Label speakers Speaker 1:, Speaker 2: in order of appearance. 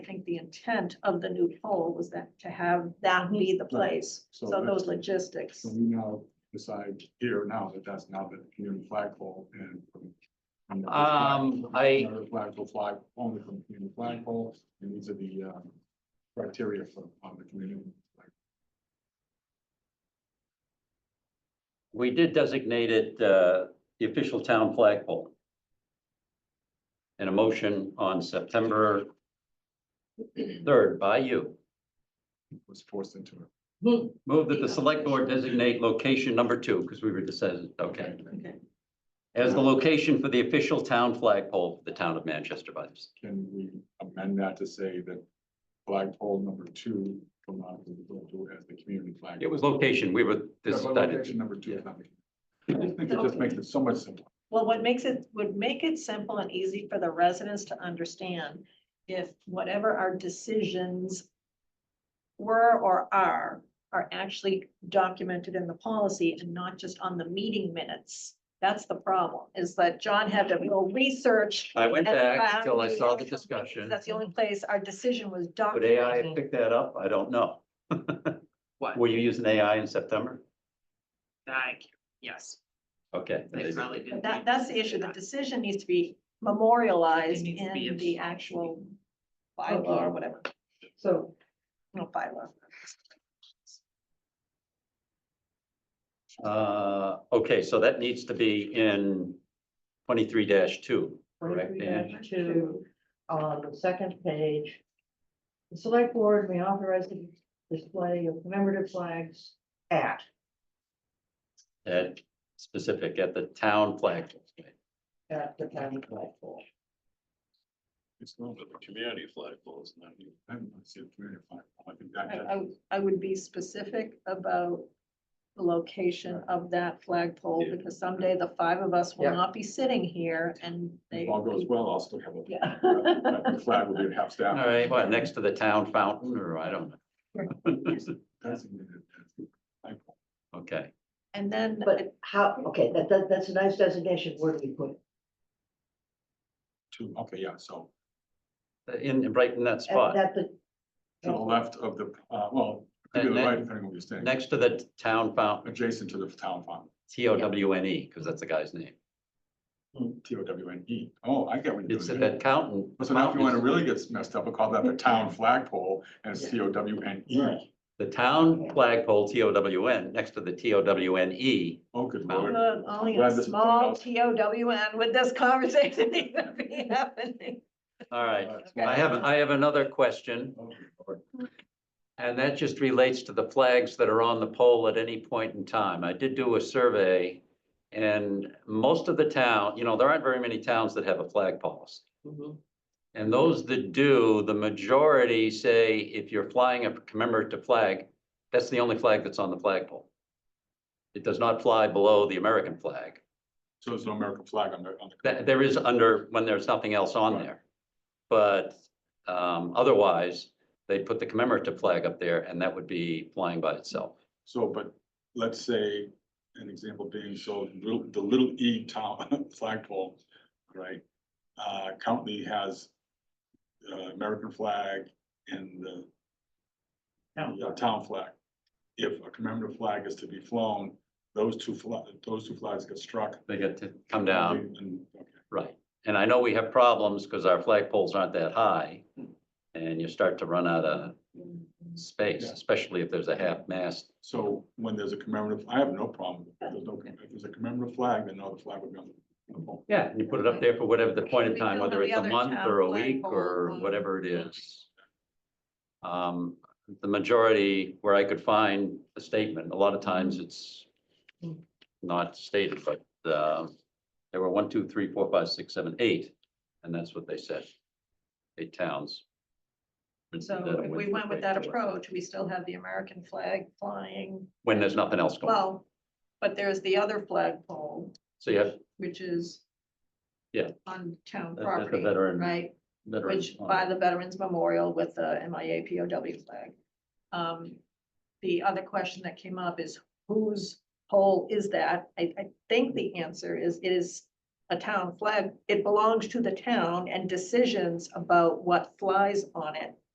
Speaker 1: the intent of the new poll was that to have that be the place.
Speaker 2: So
Speaker 1: So those
Speaker 2: that's-
Speaker 1: logistics.
Speaker 2: So we now decide here now that that's now the community flagpole and. and the
Speaker 3: Um,
Speaker 2: flag-
Speaker 3: I-
Speaker 2: another Flag will fly only from the community flagpole, and these are the, um, criteria for, on the community. flag.
Speaker 3: We did designate it, uh, the official town flagpole. And a motion on September third by you.
Speaker 2: Was forced into it.
Speaker 3: Move that the select board designate location number two, because we were decided, okay,
Speaker 1: Okay.
Speaker 3: as the location for the official town flagpole for the town of Manchester by the sea.
Speaker 2: Can we amend that to say that flagpole number two will not be referred to as the community flag?
Speaker 3: It was location, we were
Speaker 2: Yeah, but
Speaker 3: decided.
Speaker 2: Location number two. is
Speaker 3: Yeah.
Speaker 2: not the- I just think it just makes it so much simpler.
Speaker 1: Well, what makes it, would make it simple and easy for the residents to understand if whatever our decisions were or are, are actually documented in the policy and not just on the meeting minutes. That's the problem, is that John had to go research.
Speaker 3: I went
Speaker 1: and
Speaker 3: back
Speaker 1: found
Speaker 3: till I saw the
Speaker 1: actual-
Speaker 3: discussion.
Speaker 1: That's the only place our decision was
Speaker 3: Would
Speaker 1: documented.
Speaker 3: AI pick that up? I don't know.
Speaker 4: What?
Speaker 3: Were you using AI in September?
Speaker 4: I, c- yes,
Speaker 3: Okay.
Speaker 4: they probably did.
Speaker 1: That, that's the issue. The decision needs to be memorialized
Speaker 4: It needs to be
Speaker 1: in
Speaker 4: in-
Speaker 1: the actual bylaw or whatever,
Speaker 5: So
Speaker 1: no bylaw.
Speaker 3: Uh, okay, so that needs to be in twenty-three two, correct,
Speaker 5: twenty-three
Speaker 3: Dan?
Speaker 5: two, on um, the second page. The select board may authorize the display of commemorative flags at,
Speaker 3: At specific, at the town flag.
Speaker 5: at the county flagpole.
Speaker 2: It's not the community flagpole, it's not. I don't see a community flagpole. I think that-
Speaker 1: I,
Speaker 2: that-
Speaker 1: I, I would be specific about the location of that flagpole,
Speaker 2: Yeah.
Speaker 1: because someday the five of us will
Speaker 5: Yeah.
Speaker 1: not be sitting here and they.
Speaker 2: If all goes well, I'll still have
Speaker 1: Yeah.
Speaker 2: a. a Flag will be half
Speaker 3: All
Speaker 2: staff.
Speaker 3: right, what, next to the town fountain, or I don't know.
Speaker 2: Designated as flagpole.
Speaker 3: Okay,
Speaker 1: And then,
Speaker 5: But how, okay, that, that, that's a nice designation. Where do we put it?
Speaker 2: Two, okay, yeah, so
Speaker 3: in, right in that
Speaker 5: At
Speaker 3: spot,
Speaker 5: at the,
Speaker 2: to the left of the, uh, well, it could be
Speaker 3: And
Speaker 2: the
Speaker 3: then-
Speaker 2: right, depending on where you're standing,
Speaker 3: next to the town fountain,
Speaker 2: adjacent to the town farm,
Speaker 3: T O W N E, because that's the guy's name.
Speaker 5: Hmm.
Speaker 2: T O W N E. Oh, I get what you're
Speaker 3: It's at
Speaker 2: doing.
Speaker 3: that fountain.
Speaker 2: So now if you want to really get messed up, we call that the town flagpole and it's
Speaker 5: Yeah.
Speaker 2: T O W N E.
Speaker 5: Right.
Speaker 3: The town flagpole, T O W N, next to the T O W N E.
Speaker 2: Oh, good lord.
Speaker 1: uh, only
Speaker 2: Glad
Speaker 1: a
Speaker 2: this is
Speaker 1: small
Speaker 2: else.
Speaker 1: T O W N would this conversation even be happening.
Speaker 3: All right,
Speaker 2: That's
Speaker 3: I have, I have another question.
Speaker 2: Okay.
Speaker 3: And that just relates to the flags that are on the pole at any point in time. I did do a survey. And most of the town, you know, there aren't very many towns that have a flag policy.
Speaker 4: Mm-hmm.
Speaker 3: And those that do, the majority say if you're flying a commemorative flag, that's the only flag that's on the flagpole. It does not fly below the American flag.
Speaker 2: So there's no American flag on the, on the.
Speaker 3: That, there is under, when there's nothing else on
Speaker 2: Right.
Speaker 3: there. But, um, otherwise, they'd put the commemorative flag up there and that would be flying by itself.
Speaker 2: So, but let's say an example being, so little- the little E town flagpole, right? Uh, county has uh, American flag and the yeah, town flag. If a commemorative flag is to be flown, those two flags, those two flags get struck.
Speaker 3: They get to come down,
Speaker 2: And- okay.
Speaker 3: right. And I know we have problems because our flagpoles aren't that high. And you start to run out of space,
Speaker 2: Yeah.
Speaker 3: especially if there's a half mast.
Speaker 2: So when there's a commemorative, I have no problem. If There's no, if there's a commemorative flag, then no, the flag would be on the pole.
Speaker 3: Yeah, and you put it up there for whatever the point in
Speaker 1: We
Speaker 3: time,
Speaker 1: don't
Speaker 3: whether
Speaker 1: have
Speaker 3: it's
Speaker 1: the
Speaker 3: a
Speaker 1: other
Speaker 3: month
Speaker 1: town
Speaker 3: or a week
Speaker 1: flagpole
Speaker 3: or
Speaker 1: on-
Speaker 3: whatever it is. Um, the majority where I could find a statement, a lot of times it's not stated, but, um, there were one, two, three, four, five, six, seven, eight, and that's what they said. Eight towns.
Speaker 1: So if we went with that approach, we still have the American flag flying,
Speaker 3: When there's nothing else going, on.
Speaker 1: well, but there's the other flagpole,
Speaker 3: so you have,
Speaker 1: which is
Speaker 3: Yeah.
Speaker 1: on town
Speaker 3: That- that's the
Speaker 1: property,
Speaker 3: veteran-
Speaker 1: right?
Speaker 3: veterans
Speaker 1: Which
Speaker 3: on
Speaker 1: by
Speaker 3: it.
Speaker 1: the Veterans Memorial with the MIA POW flag. Um, the other question that came up is whose pole is that? I, I think the answer is, it is a town flag. It belongs to the town and decisions about what flies on it